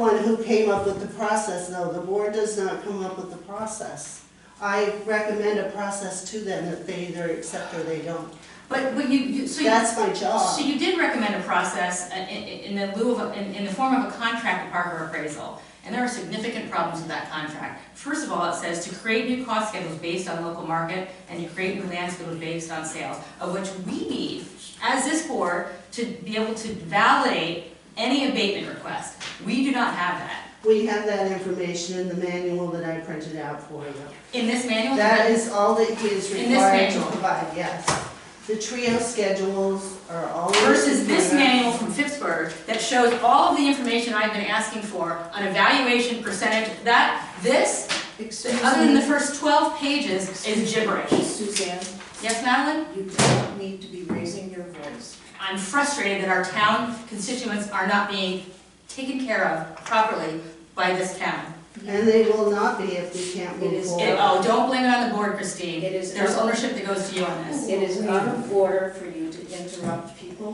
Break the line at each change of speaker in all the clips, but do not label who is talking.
one who came up with the process, no, the board does not come up with the process. I recommend a process to them that they either accept or they don't.
But, but you, you, so you,
That's my job.
so you did recommend a process uh, in, in in the lieu of, a- in, in the form of a contract with Parker Appraisal. And there are significant problems with that contract. First of all, it says to create new cost schedules based on local market and to create new land schedules based on sales, of which we need, as this board, to be able to validate any abatement request. We do not have that.
We have that information in the manual that I printed out for you.
In this manual,
That is all that he is
In this
required to
manual.
provide, yes. The trio schedules are all.
versus this
Yeah.
manual from Pittsburgh that shows all of the information I've been asking for on evaluation percentage, that, this,
Excuse
other than the
me,
first twelve pages, is gibberish.
Suzanne,
Yes, Madeline?
you don't need to be raising your voice.
I'm frustrated that our town constituents are not being taken care of properly by this town.
And they will not be if we can't
It
move
is-
And,
forward.
oh, don't blame it on the board, Christine.
It is-
There's ownership that goes to you on this.
It is out of order for you to interrupt people.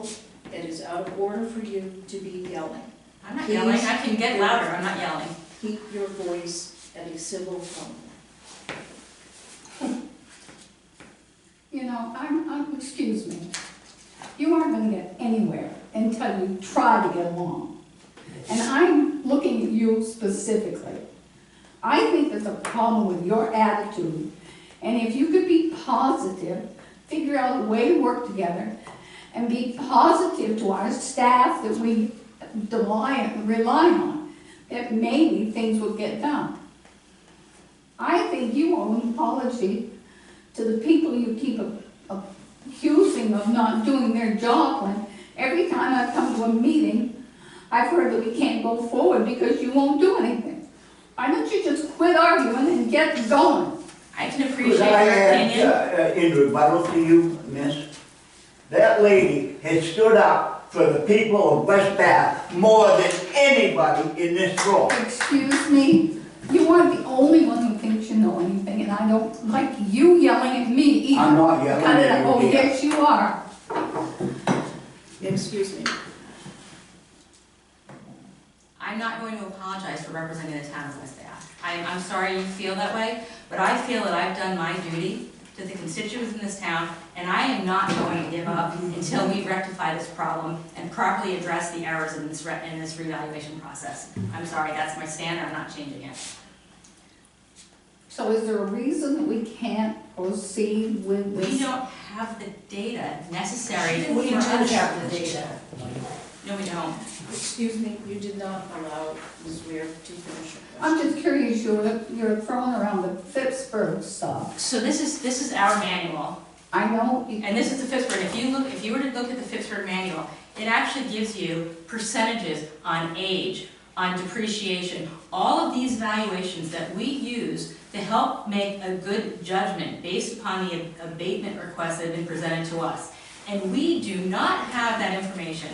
It is out of order for you to be yelling.
I'm not yelling, I can get louder, I'm not yelling.
Keep your voice at a civil tone.
You know, I'm, I'm, excuse me, you aren't gonna get anywhere until you try to get along. And I'm looking at you specifically. I think there's a problem with your attitude, and if you could be positive, figure out a way to work together, and be positive to our staff that we rely, rely on, that maybe things will get done. I think you owe an apology to the people you keep a- a- accusing of not doing their job when every time I come to a meeting, I've heard that we can't go forward because you won't do anything. Why don't you just quit arguing and get going?
I can appreciate
Could
your
I
opinion.
add, uh, uh, in rebuttal to you, miss? That lady has stood up for the people of West Bath more than anybody in this room.
Excuse me, you are the only one who thinks you know anything, and I don't like you yelling at me either.
I'm not yelling
Cut it out.
at you,
Oh,
dear.
yes, you are.
Excuse me.
I'm not going to apologize for representing the town of West Bath. I, I'm sorry you feel that way, but I feel that I've done my duty to the constituents in this town, and I am not going to give up until we rectify this problem and properly address the errors in this, re- in this revaluation process. I'm sorry, that's my stand, I'm not changing it.
So is there a reason that we can't proceed with this?
We don't have the data necessary for
We do
us.
have the data.
No, we don't.
Excuse me, you did not allow Ms. Weir to finish her
I'm
question.
just curious, you're, you're throwing around the Pittsburgh stuff.
So this is, this is our manual.
I know, you-
And this is the Pittsburgh, if you look, if you were to look at the Pittsburgh manual, it actually gives you percentages on age, on depreciation, all of these valuations that we use to help make a good judgment based upon the abatement requests that have been presented to us. And we do not have that information,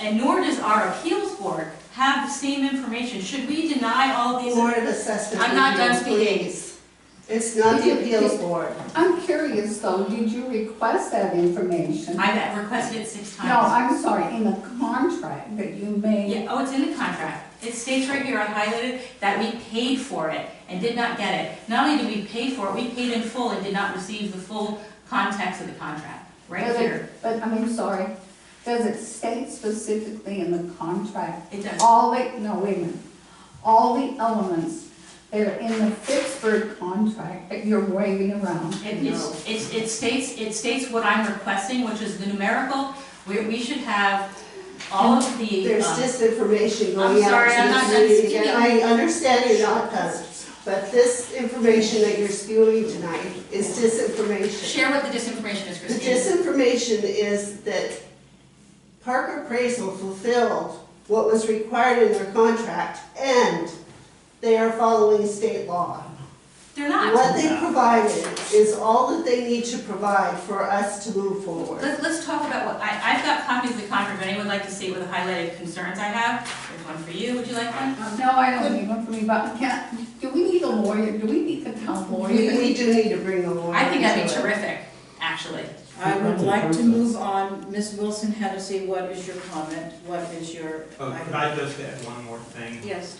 and nor does our appeals board have the same information. Should we deny all of these?
Board of Assessment
I'm not done
Review,
speaking.
please. It's not the appeals board.
I'm curious though, did you request that information?
I've requested it six times.
No, I'm sorry, in the contract that you made.
Yeah, oh, it's in the contract. It states right here, I highlighted, that we paid for it and did not get it. Not only did we pay for it, we paid in full and did not receive the full context of the contract, right
Does it-
here.
But, I mean, sorry, does it state specifically in the contract,
It does.
all the, no, wait a minute, all the elements that are in the Pittsburgh contract that you're waving around?
It, it's- it's- it states, it states what I'm requesting, which is the numerical, where we should have all of the,
There's
um,
disinformation
I'm
going out
sorry, I'm
to
not done
the community.
speaking.
again. I understand you're not done, but this information that you're spewing tonight is disinformation.
share what the disinformation is,
The
Christine.
disinformation is that Parker Appraisal fulfilled what was required in their contract, and they are following state law.
They're not.
What they provided is all that they need to provide for us to move forward.
Let's, let's talk about what, I, I've got copies of the contract, if anyone would like to see what the highlighted concerns I have. There's one for you, would you like one?
No, I don't need one for me, but can, do we need a lawyer, do we need the town lawyer?
We, we do need to bring the lawyer
I think that'd be
into it.
terrific, actually.
I would like to move on. Ms. Wilson Hennessy, what is your comment? What is your?
Oh, could I just add one more thing?
Yes.